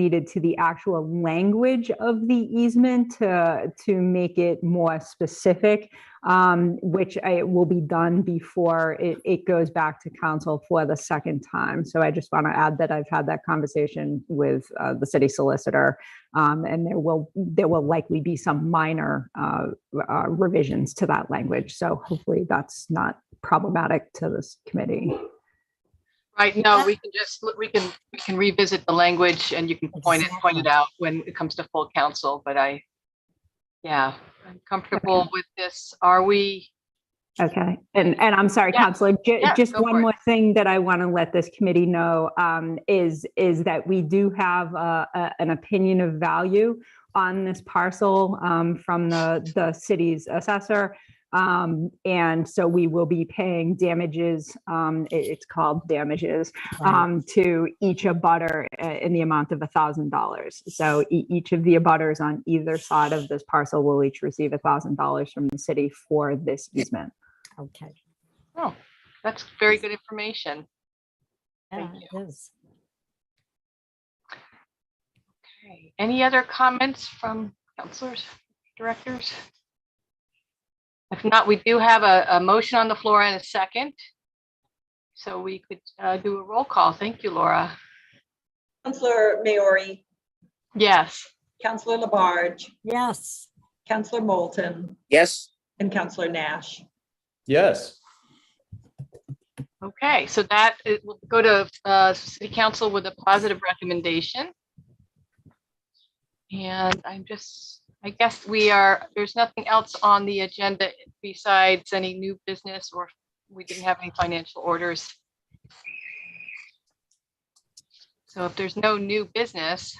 needed to the actual language of the easement to, to make it more specific, um, which I, will be done before it, it goes back to council for the second time. So I just want to add that I've had that conversation with uh, the city solicitor. um, And there will, there will likely be some minor uh, uh, revisions to that language. So hopefully that's not problematic to this committee. Right, no, we can just, we can, we can revisit the language and you can point it, point it out when it comes to full council, but I, yeah, I'm comfortable with this. Are we, Okay, and, and I'm sorry, Yeah. Counselor, ju- Yeah, just go for one it. more thing that I want to let this committee know um, is, is that we do have uh, a- an opinion of value on this parcel um, from the, the city's assessor. Um, And so we will be paying damages, um, it- it's called damages, um, to each abutter uh, in the amount of a thousand dollars. So e- each of the abutters on either side of this parcel will each receive a thousand dollars from the city for this easement. Okay. that's very good information. Thank Yeah, it is. Okay. Any other comments from counselors, directors? If not, we do have a, a motion on the floor and a second. So we could uh, do a roll call. Thank you, Laura. Counselor Maori, Yes. Counselor Labarge, Yes, Counselor Moulton, Yes, and Counselor Nash. Yes, Okay, so that, it will go to uh, city council with a positive recommendation. And I'm just, I guess we are, there's nothing else on the agenda besides any new business or we didn't have any financial orders. So if there's no new business,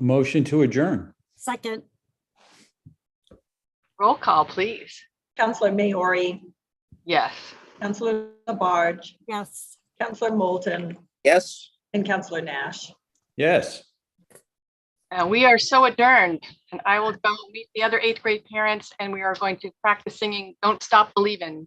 motion to adjourn. second, roll call, please. Counselor Maori, Yes. Counselor Labarge, yes. Counselor Moulton, yes. and Counselor Nash. Yes. Uh, we are so adjourned and I will go meet the other eighth grade parents and we are going to practice singing Don't Stop Believin'.